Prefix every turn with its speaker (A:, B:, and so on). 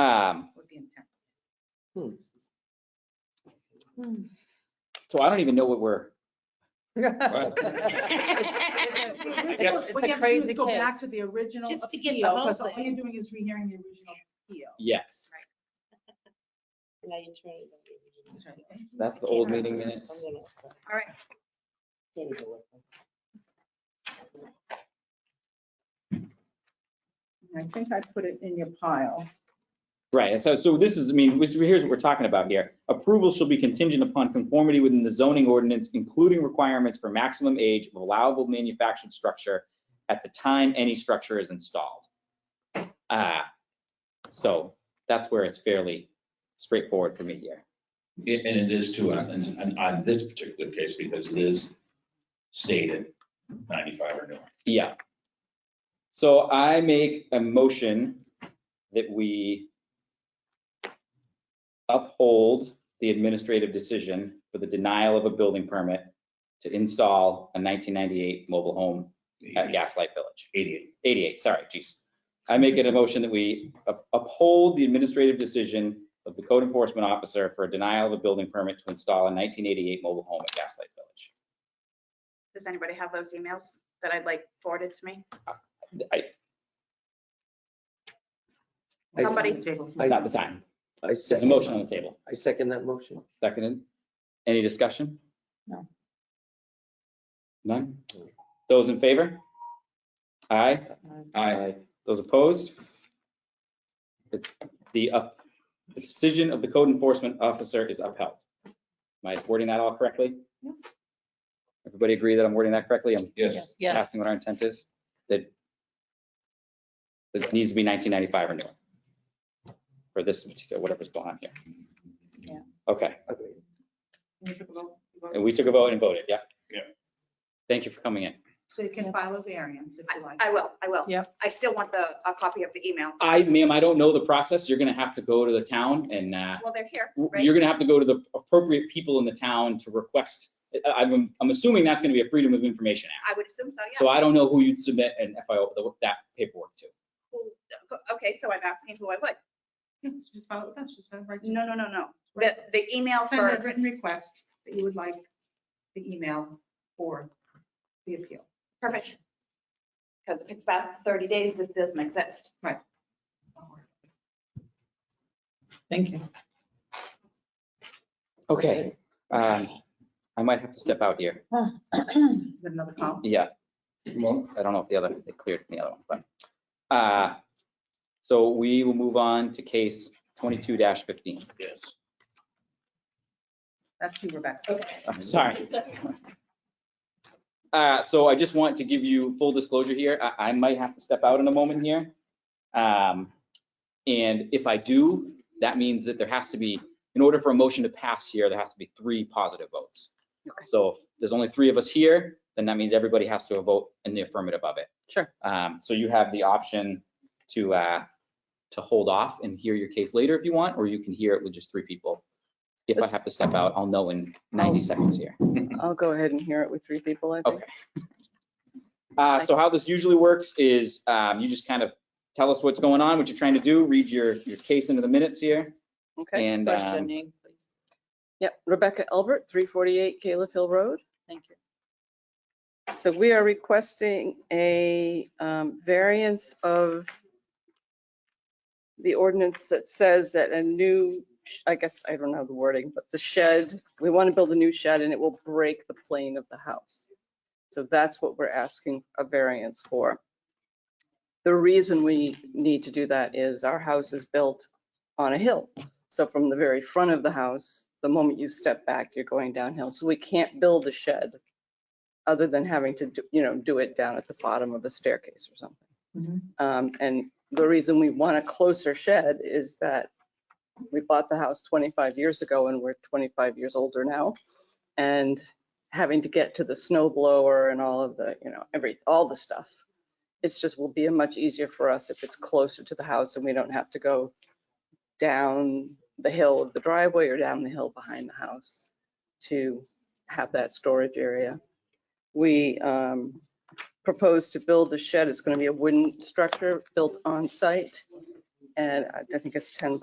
A: Um,
B: Hmm.
A: So I don't even know what we're,
C: It's
D: What you
C: a
D: have to do is
C: crazy
D: Go back
C: kiss.
D: to the original appeal,
C: Just to get the whole
D: because all
C: thing.
D: you're doing is rehearing the original appeal.
A: yes,
C: Now you turn it on.
A: that's the old meeting minutes.
C: Something else.
E: All right.
C: There you go.
D: And I think I put it in your pile.
A: Right, and so, so this is, I mean, this- here's what we're talking about here. Approval shall be contingent upon conformity within the zoning ordinance, including requirements for maximum age of allowable manufactured structure at the time any structure is installed. Ah, so that's where it's fairly straightforward for me here.
F: It- And it is too, on- and and on this particular case, because it is stated 95 or newer.
A: Yeah. So I make a motion that we uphold the administrative decision for the denial of a building permit to install a 1998 mobile home at Gaslight Village.
F: 88.
A: 88, sorry, geez. I make it a motion that we up- uphold the administrative decision of the code enforcement officer for a denial of a building permit to install a 1988 mobile home at Gaslight Village.
E: Does anybody have those emails that I'd like forwarded to me?
A: I-
B: I-
E: Somebody-
A: Not the time.
B: I
A: There's a
B: second,
A: motion on the table.
B: I second that motion.
A: Seconded. Any discussion?
D: No.
A: None? Those in favor? Aye.
F: Aye.
A: Those opposed? The- The, uh, the decision of the code enforcement officer is upheld. Am I wording that all correctly?
D: Yep.
A: Everybody agree that I'm wording that correctly? I'm
F: Yes,
C: Yes.
A: casting what our intent is? That it needs to be 1995 or newer for this particular, whatever's behind here.
D: Yeah.
A: Okay.
B: Agreed.
D: You took a vote, you voted.
A: And we took a vote and voted, yeah?
F: Yeah.
A: Thank you for coming in.
D: So you can file a variance if you like.
E: I will, I will.
C: Yep.
E: I still want the, a copy of the email.
A: I, ma'am, I don't know the process. You're gonna have to go to the town and, uh,
E: Well, they're here, right?
A: you're gonna have to go to the appropriate people in the town to request. I- I'm, I'm assuming that's gonna be a Freedom of Information
E: I
A: Act.
E: would assume so,
A: So
E: yeah.
A: I don't know who you'd submit an FIO, the- that paperwork to.
E: Who- Okay, so I'm asking who I would.
D: Yeah, so Just file it with us, just send it right to.
E: No, no, no, no. The, the email
D: Send a
E: for,
D: written request that you would like the email for the appeal.
E: perfect. Because if it's past 30 days, this doesn't exist.
C: Thank you.
A: Okay. um, I might have to step out here.
D: Is there Another call.
A: Yeah.
F: Well-
A: I don't know if the other, it cleared from the other one, but. uh, So we will move on to case 22-15.
F: yes.
D: That's you, Rebecca.
A: I'm sorry. Uh, so I just want to give you full disclosure here. I, I might have to step out in a moment here. Um, and if I do, that means that there has to be, in order for a motion to pass here, there has to be three positive votes. So if there's only three of us here, then that means everybody has to vote in the affirmative of it.
C: Sure.
A: Um, so you have the option to, uh, to hold off and hear your case later if you want, or you can hear it with just three people. If I have to step out, I'll know in 90 seconds here.
G: I'll go ahead and hear it with three people, I think.
A: Okay. Uh, so how this usually works is, um, you just kind of tell us what's going on, what you're trying to do, read your, your case into the minutes here.
G: Okay.
A: And, um,
C: Questioning, please.
G: Yep, Rebecca Elbert, 348 Caleb Hill Road.
C: Thank you.
G: So we are requesting a um, variance of the ordinance that says that a new, sh- I guess, I don't know the wording, but the shed, we want to build a new shed and it will break the plane of the house. So that's what we're asking a variance for. The reason we need to do that is our house is built on a hill. So from the very front of the house, the moment you step back, you're going downhill. So we can't build a shed other than having to, do- you know, do it down at the bottom of a staircase or
D: Mhm.
G: something. Um, And the reason we want a closer shed is that we bought the house 25 years ago and we're 25 years older now. And having to get to the snow blower and all of the, you know, every, all the stuff. It's just will be much easier for us if it's closer to the house and we don't have to go down the hill of the driveway or down the hill behind the house to have that storage area. We um, propose to build the shed. It's going to be a wooden structure built on site. And I think it's 10